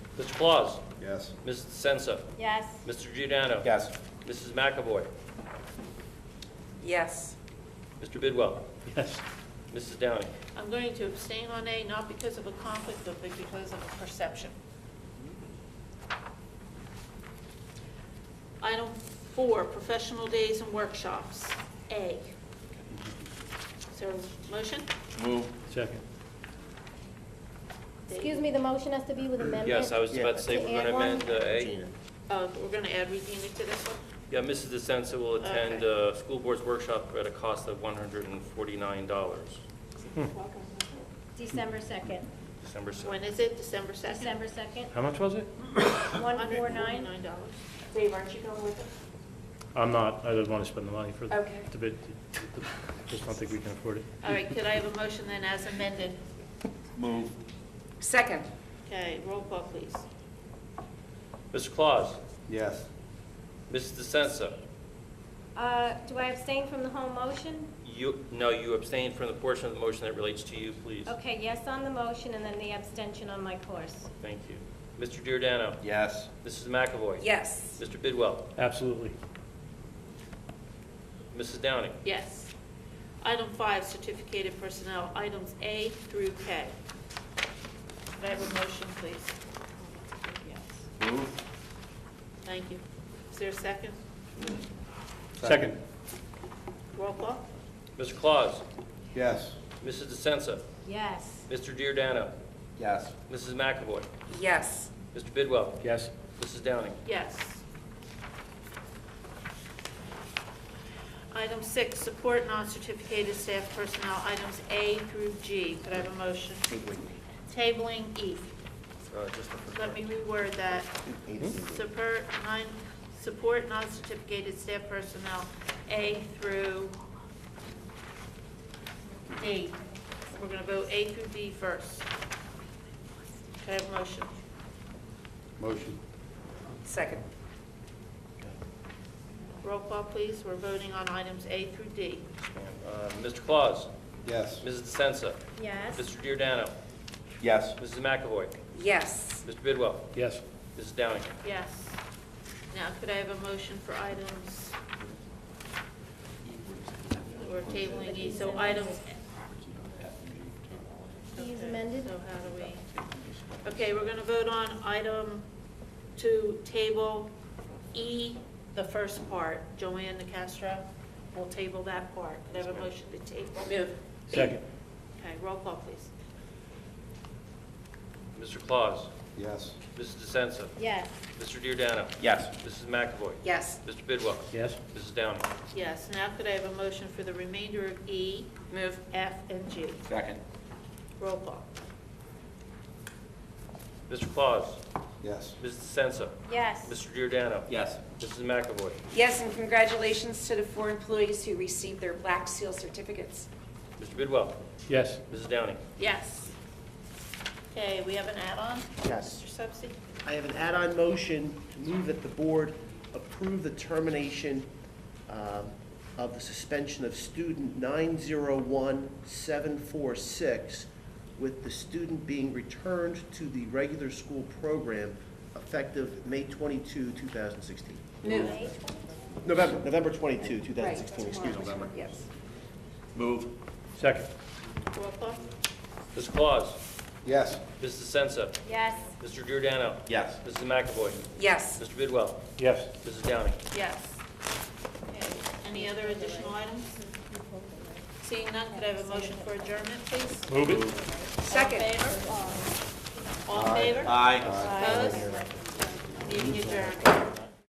Mr. Claus. Yes. Mrs. DeSensa. Yes. Mr. Giordano. Yes. Mrs. McAvoy. Yes. Mr. Bidwell. yes, Mrs. Downing. I'm going to abstain on A, not because of a conflict, but because of a perception. Item four, professional days and workshops, A. Is there a motion? Move. second, Excuse me, the motion has to be with amendment? Yes, I was Yeah. about to say, To we're going add to one? amend uh, A. Gina. Uh, We're going to add Regina to this one? Yeah, Mrs. DeSensa will attend uh school board's workshop at a cost of $149, Hmm. December 2nd. December 7th. When is it? December 2nd? December 2nd, how much was it? 149. dollars. Dave, aren't you going with us? I'm not, I don't want to spend the money for the, Okay. the bid, just don't think we can afford it. All right, could I have a motion then as amended? Move. Second. Okay, roll call, please. Mr. Claus. Yes. Mrs. DeSensa. Uh, Do I abstain from the whole motion? You, no, you abstained from the portion of the motion that relates to you, please. Okay, yes on the motion, and then the abstention on my course. Thank you. Mr. Giordano. Yes. Mrs. McAvoy. Yes. Mr. Bidwell. Absolutely, Mrs. Downing. Yes. Item five, certificated personnel, items A through K. Could I have a motion, please? Yes. Move. Thank you. Is there a second? second, Roll call? Mr. Claus. Yes. Mrs. DeSensa. Yes. Mr. Giordano. Yes. Mrs. McAvoy. Yes. Mr. Bidwell. yes, Mrs. Downing. Yes. Item six, support non-certificated staff personnel, items A through G. Could I have a motion? Tabling E. Uh, just the first Let one. me reword that. Support, nine, support non-certificated staff personnel A through D. We're gonna vote A through D first. Can I have a motion? Motion. Second. Roll call, please. We're voting on items A through D. Uh, Mr. Claus. Yes. Mrs. DeSensa. Yes. Mr. Giordano. Yes. Mrs. McAvoy. Yes. Mr. Bidwell. yes, Mrs. Downing. Yes. Now, could I have a motion for items? We're tabling E, so items. These Okay, amended? So how do we? Okay, we're gonna vote on item to table E, the first part. Joanne Castro will table that part. Could I have a motion to table? Move. second, Okay, roll call, please. Mr. Claus. Yes. Mrs. DeSensa. Yes. Mr. Giordano. Yes. Mrs. McAvoy. Yes. Mr. Bidwell. yes, Mrs. Downing. Yes, now could I have a motion for the remainder of E, Move. F, and G? Second. Roll call. Mr. Claus. Yes. Mrs. DeSensa. Yes. Mr. Giordano. Yes. Mrs. McAvoy. Yes, and congratulations to the four employees who received their Black Seal certificates. Mr. Bidwell. yes, Mrs. Downing. Yes. Okay, we have an add-on? Yes. Mr. Subsi? I have an add-on motion to move that the board approve the termination um, of the suspension of student 901746, with the student being returned to the regular school program effective May 22, 2016. Move. November, November 22, 2016, Right, excuse me. tomorrow. Yes. Move. second, Roll call? Mr. Claus. Yes. Mrs. DeSensa. Yes. Mr. Giordano. Yes. Mrs. McAvoy. Yes. Mr. Bidwell. yes, Mrs. Downing. Yes. Okay, Any other additional items? Seeing none, could I have a motion for adjournment, please? move it. Second. All in favor? All in favor? Aye. Opposed? Meeting adjourned.